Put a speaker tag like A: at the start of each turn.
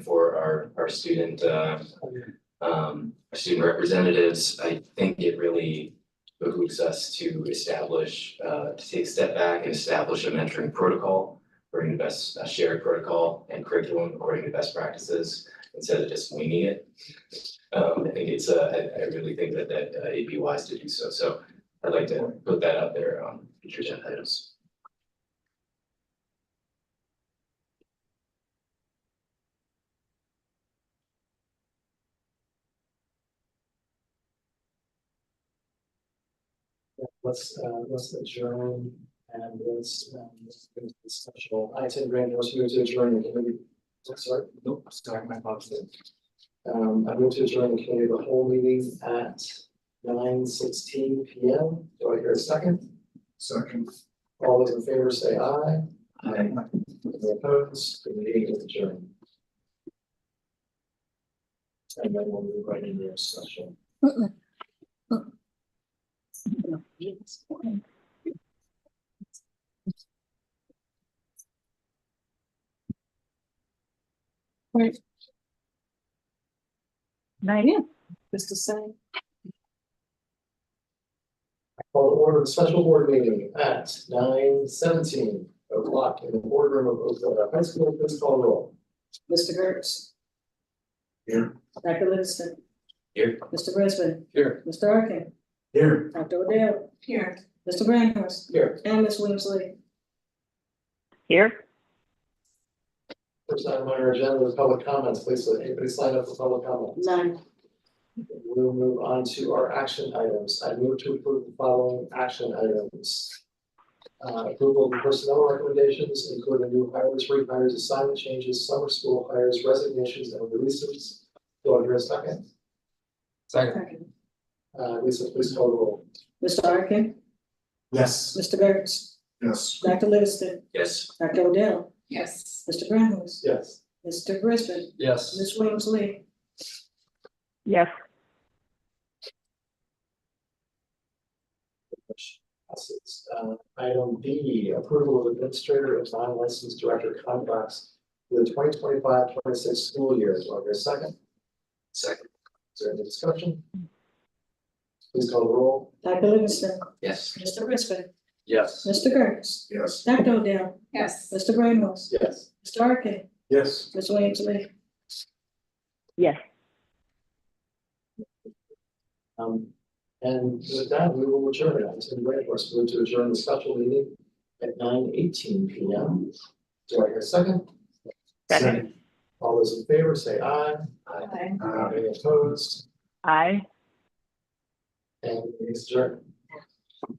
A: for our, our student, uh, um, our student representatives, I think it really behooves us to establish, uh, to take a step back and establish a mentoring protocol, bring the best, a shared protocol and curriculum according to best practices instead of just winging it. Um, I think it's, uh, I, I really think that, that uh, it'd be wise to do so. So I'd like to put that out there on future agenda items.
B: Let's, uh, let's adjourn and let's, um, let's do this special, I attend grand, let's move to adjourn the committee. Oh, Sorry, nope, sorry, my boss did. Um, I move to adjourn the committee, of the whole meeting at nine sixteen P M. Do I hear a second? Second. All those in favor say aye. Aye. Any opposed, the meeting is adjourned. And then we'll move right into our special.
C: Right in, just to say.
B: Call to order the special board meeting at nine seventeen o'clock in the boardroom of Oakdale High School, please call roll.
C: Mr. Gertz.
B: Here.
C: Dr. Livingston.
A: Here.
C: Mr. Brisbane.
B: Here.
C: Mr. Arkin.
B: Here.
C: Dr. Odell. Here. Mr. Grandhouse.
B: Here,
C: And Ms. Winsley.
D: Here,
B: first item on our agenda is public comments, please, let anybody sign up for public comment.
C: None.
B: We'll move on to our action items, I move to approve the following action items. Uh, approval of personnel recommendations, including new hires, rehires, assignment changes, summer school hires, resignations, and releases. Do I hear a second? Uh, Lisa, please call the roll.
C: Mr. Arkin.
B: Yes.
C: Mr. Gertz.
B: Yes.
C: Dr. Livingston.
A: Yes,
C: Dr. Odell. Yes. Mr. Grandhouse.
B: Yes.
C: Mr. Brisbane.
B: Yes.
C: Ms. Winsley.
D: yes,
B: Which passes. Uh, item B, approval of administrator of non-licensed director contracts for the 2025-26 school year. Do I hear a second?
A: second,
B: Is there any discussion? Please call the roll.
C: Dr. Livingston.
A: yes,
C: Mr. Brisbane.
B: Yes.
C: Mr. Gertz.
B: Yes.
C: Dr. Odell. Yes. Mr. Grandhouse.
B: Yes.
C: Mr. Arkin.
B: Yes.
C: Ms. Winsley.
D: yes.
B: Um, and with that, we will adjourn. I'm going to wait for us to adjourn the special meeting at nine eighteen P M. Do I hear a second?
D: Second,
B: All those in favor, say aye.
C: Aye.
B: Uh, Any opposed?
D: aye.
B: And we adjourn.